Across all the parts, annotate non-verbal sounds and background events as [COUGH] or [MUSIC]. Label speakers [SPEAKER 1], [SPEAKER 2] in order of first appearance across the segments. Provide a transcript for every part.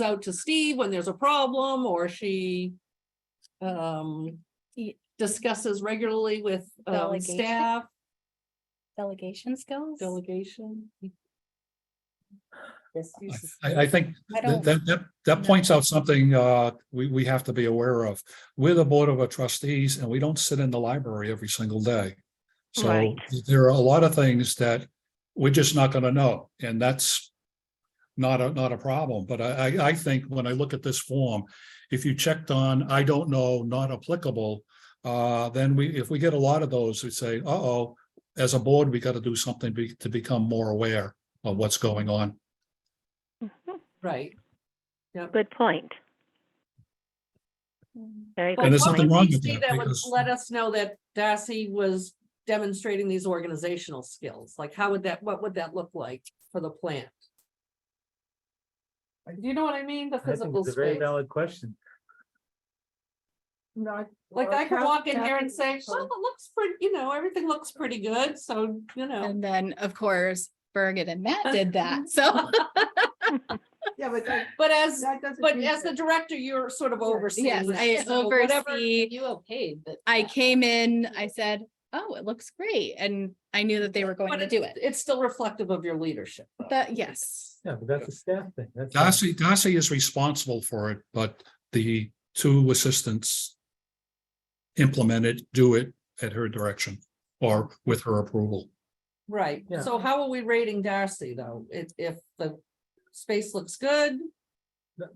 [SPEAKER 1] out to Steve when there's a problem, or she um,
[SPEAKER 2] Ye-
[SPEAKER 1] discusses regularly with um,
[SPEAKER 2] Delegation?
[SPEAKER 1] staff,
[SPEAKER 2] delegation skills?
[SPEAKER 1] delegation.
[SPEAKER 2] This is-
[SPEAKER 3] I, I think
[SPEAKER 2] I
[SPEAKER 3] that,
[SPEAKER 2] don't-
[SPEAKER 3] that, that- that
[SPEAKER 2] know.
[SPEAKER 3] points out something, uh, we, we have to be aware of. We're the Board of Trustees and we don't sit in the library every single day. So
[SPEAKER 4] Right.
[SPEAKER 3] there are a lot of things that we're just not gonna know, and that's not a, not a problem, but I, I, I think when I look at this form, if you checked on, I don't know, not applicable, uh, then we, if we get a lot of those, we say, uh-oh, as a board, we gotta do something be- to become more aware of what's going on.
[SPEAKER 4] Mhm.
[SPEAKER 1] Right.
[SPEAKER 4] Good point.
[SPEAKER 2] Mm.
[SPEAKER 4] Very
[SPEAKER 1] But
[SPEAKER 4] good
[SPEAKER 3] there's
[SPEAKER 1] what would
[SPEAKER 3] nothing
[SPEAKER 4] point.
[SPEAKER 3] wrong
[SPEAKER 1] we
[SPEAKER 3] with
[SPEAKER 1] see
[SPEAKER 3] that,
[SPEAKER 1] That would
[SPEAKER 3] because-
[SPEAKER 1] let us know that Darcy was demonstrating these organizational skills. Like, how would that, what would that look like for the plant?
[SPEAKER 5] I-
[SPEAKER 1] Do you know what I mean? The
[SPEAKER 5] I think
[SPEAKER 1] physical
[SPEAKER 5] it's a very
[SPEAKER 1] space.
[SPEAKER 5] valid question.
[SPEAKER 6] Not.
[SPEAKER 1] Like, I could walk in here and say, well, it looks pretty, you know, everything looks pretty good, so, you know.
[SPEAKER 2] And then, of course, Bergen and [LAUGHS] Matt did that, so.
[SPEAKER 6] Yeah, but that,
[SPEAKER 1] But as,
[SPEAKER 6] that doesn't.
[SPEAKER 1] but
[SPEAKER 6] mean
[SPEAKER 1] as the
[SPEAKER 6] that-
[SPEAKER 1] director, you're sort of overseeing.
[SPEAKER 2] Yes,
[SPEAKER 1] this,
[SPEAKER 2] I
[SPEAKER 1] so whatever-
[SPEAKER 2] oversee,
[SPEAKER 7] You okayed that.
[SPEAKER 2] I came in, I said, oh, it looks great, and I knew that they were going
[SPEAKER 1] But
[SPEAKER 2] to
[SPEAKER 1] it's,
[SPEAKER 2] do it.
[SPEAKER 1] it's still reflective of your leadership. though.
[SPEAKER 2] That, yes,
[SPEAKER 5] Yeah, but that's a staff thing. That's. not-
[SPEAKER 3] Darcy, Darcy is responsible for it, but the two assistants implement it, do it at her direction or with her approval.
[SPEAKER 1] Right,
[SPEAKER 5] Yeah.
[SPEAKER 1] so how are we rating Darcy though? If, if the space looks good,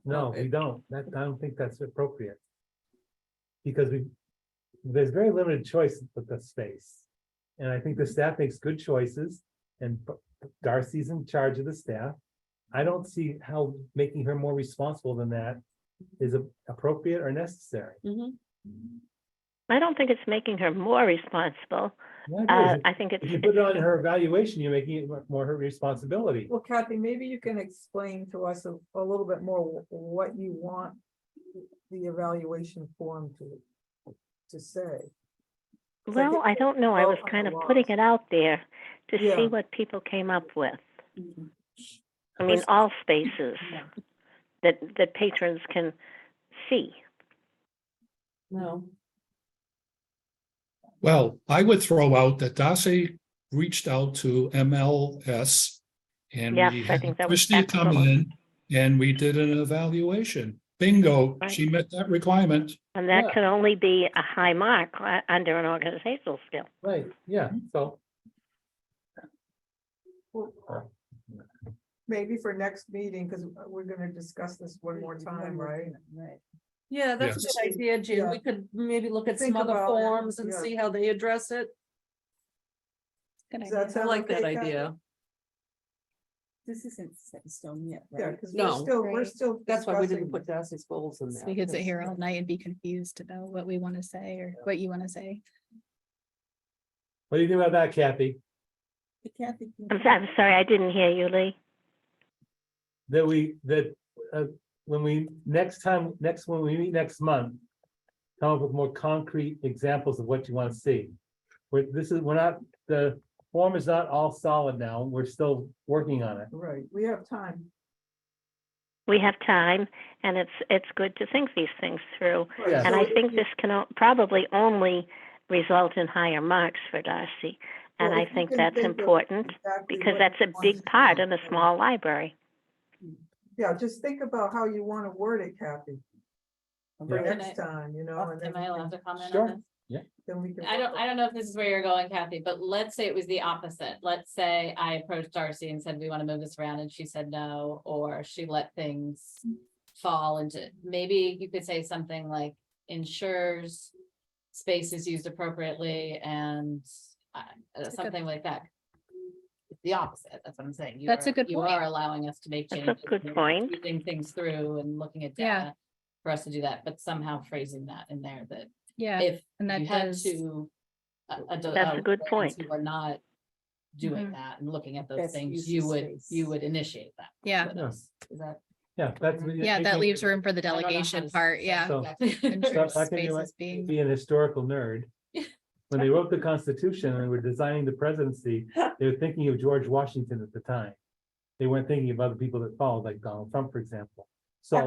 [SPEAKER 5] No, we don't. That, I don't think that's appropriate. Because we, there's very limited choice with the space. And I think the staff makes good choices and Darcy's in charge of the staff. I don't see how making her more responsible than that is a- appropriate or necessary.
[SPEAKER 4] I don't think it's making her more responsible.
[SPEAKER 5] Yeah, it
[SPEAKER 4] Uh,
[SPEAKER 5] is.
[SPEAKER 4] I think it's,
[SPEAKER 5] If you put it on her evaluation, you're making it more her responsibility.
[SPEAKER 6] Well, Kathy, maybe you can explain to us a, a little bit more wh- what you want the evaluation form to, to say.
[SPEAKER 4] well, I don't know. I
[SPEAKER 6] all
[SPEAKER 4] was
[SPEAKER 6] on
[SPEAKER 4] kind of
[SPEAKER 6] the
[SPEAKER 4] putting
[SPEAKER 6] walls.
[SPEAKER 4] it out there to see
[SPEAKER 6] Yeah.
[SPEAKER 4] what people came up with.
[SPEAKER 5] Mm-hmm.
[SPEAKER 4] I mean,
[SPEAKER 1] Listen-
[SPEAKER 4] all spaces
[SPEAKER 1] Yeah.
[SPEAKER 4] that, that patrons can see.
[SPEAKER 1] no,
[SPEAKER 3] Well, I would throw out that Darcy reached out to MLS and
[SPEAKER 4] Yes,
[SPEAKER 3] we
[SPEAKER 4] I
[SPEAKER 3] had
[SPEAKER 4] think that was
[SPEAKER 3] Christie come in
[SPEAKER 4] excellent.
[SPEAKER 3] and we did an evaluation. Bingo, she met that requirement.
[SPEAKER 4] And that
[SPEAKER 5] Yeah.
[SPEAKER 4] can only be a high mark uh, under an organizational skill.
[SPEAKER 5] Right, yeah, so.
[SPEAKER 6] Maybe for next meeting, because we're gonna discuss this one more time, right? Right.
[SPEAKER 1] yeah, that's a good idea, Jim.
[SPEAKER 6] Yeah.
[SPEAKER 1] We could maybe look at some
[SPEAKER 6] Think
[SPEAKER 1] other
[SPEAKER 6] about it,
[SPEAKER 1] forms and
[SPEAKER 6] yeah.
[SPEAKER 1] see how they address it.
[SPEAKER 2] good
[SPEAKER 6] Is
[SPEAKER 2] idea.
[SPEAKER 6] that
[SPEAKER 1] I
[SPEAKER 6] Sound
[SPEAKER 1] like that
[SPEAKER 6] okay, Kathy?
[SPEAKER 1] idea.
[SPEAKER 7] This isn't set in stone yet,
[SPEAKER 6] Yeah,
[SPEAKER 7] right?
[SPEAKER 6] because
[SPEAKER 1] No.
[SPEAKER 6] we're still, we're
[SPEAKER 2] Right.
[SPEAKER 6] still.
[SPEAKER 1] That's why we
[SPEAKER 6] discussing
[SPEAKER 1] didn't put Darcy's goals in there.
[SPEAKER 2] We could sit
[SPEAKER 1] because-
[SPEAKER 2] here all night and be confused to know what we want to say or what you want to say.
[SPEAKER 5] What do you think about that, Kathy?
[SPEAKER 7] Kathy can-
[SPEAKER 5] Mm-hmm.
[SPEAKER 4] I'm, so- I'm sorry, I didn't hear you, Lee.
[SPEAKER 5] That we, that, uh, when we, next time, next, when we meet next month. Come up with more concrete examples of what you want to see. We're, this is, we're not, the form is not all solid now, we're still working on it.
[SPEAKER 6] Right, we have time.
[SPEAKER 4] We have time and it's, it's good to think these things through.
[SPEAKER 5] Yeah.
[SPEAKER 4] And
[SPEAKER 6] So
[SPEAKER 4] I
[SPEAKER 6] if
[SPEAKER 4] think
[SPEAKER 6] you-
[SPEAKER 4] this can o- probably only result in higher marks for Darcy. And
[SPEAKER 6] Well,
[SPEAKER 4] I
[SPEAKER 6] if you
[SPEAKER 4] think
[SPEAKER 6] can
[SPEAKER 4] that's
[SPEAKER 6] think of
[SPEAKER 4] important
[SPEAKER 6] exactly
[SPEAKER 4] because
[SPEAKER 6] what
[SPEAKER 4] that's
[SPEAKER 6] you
[SPEAKER 4] a
[SPEAKER 6] want
[SPEAKER 4] big
[SPEAKER 6] to
[SPEAKER 4] part
[SPEAKER 6] do.
[SPEAKER 4] in a small library.
[SPEAKER 6] Yeah, just think about how you want to word it, Kathy, for
[SPEAKER 5] Yeah.
[SPEAKER 7] Can I-
[SPEAKER 6] next time, you know, and then,
[SPEAKER 7] Am I allowed to comment
[SPEAKER 5] Sure.
[SPEAKER 7] on this?
[SPEAKER 6] then we can.
[SPEAKER 7] I don't, I don't know if this is where you're going, Kathy, but let's say it was the opposite. Let's say I approached Darcy and said, we want to move this around, and she said no, or she let things fall into, maybe you could say something like ensures space is used appropriately and uh, uh,
[SPEAKER 2] a good-
[SPEAKER 7] something like that. It's The opposite, that's what I'm saying. You
[SPEAKER 2] That's a
[SPEAKER 7] are-
[SPEAKER 2] good
[SPEAKER 7] You
[SPEAKER 2] point.
[SPEAKER 7] are allowing us to make
[SPEAKER 4] That's a
[SPEAKER 7] changes.
[SPEAKER 4] good
[SPEAKER 7] and
[SPEAKER 4] point.
[SPEAKER 7] Thinking things through and looking at
[SPEAKER 2] Yeah.
[SPEAKER 7] data for us to do that, but somehow phrasing that in there that
[SPEAKER 2] Yeah,
[SPEAKER 7] if
[SPEAKER 2] and that
[SPEAKER 7] you had
[SPEAKER 2] does,
[SPEAKER 7] to. a- a do-
[SPEAKER 4] That's a good
[SPEAKER 7] brands
[SPEAKER 4] point.
[SPEAKER 7] Who are not doing
[SPEAKER 2] Mm-hmm.
[SPEAKER 7] that and looking at those
[SPEAKER 6] Best
[SPEAKER 7] things,
[SPEAKER 6] use
[SPEAKER 7] you
[SPEAKER 6] of
[SPEAKER 7] would, you
[SPEAKER 6] space.
[SPEAKER 7] would initiate that.
[SPEAKER 2] yeah,
[SPEAKER 7] with
[SPEAKER 5] Yeah.
[SPEAKER 7] us. Is that?
[SPEAKER 5] Yeah, that's.
[SPEAKER 2] yeah, that leaves room for the
[SPEAKER 7] I don't know how
[SPEAKER 2] delegation
[SPEAKER 7] to
[SPEAKER 2] part,
[SPEAKER 7] say
[SPEAKER 2] yeah.
[SPEAKER 5] So-
[SPEAKER 7] that.
[SPEAKER 2] and
[SPEAKER 7] [LAUGHS]
[SPEAKER 5] Stop
[SPEAKER 2] troops,
[SPEAKER 5] talking to you,
[SPEAKER 2] spaces
[SPEAKER 5] like,
[SPEAKER 2] being-
[SPEAKER 5] Be an historical nerd. When they wrote the Constitution and were designing the presidency, they were thinking of George Washington at the time. They weren't thinking of other people that followed, like Donald Trump, for example.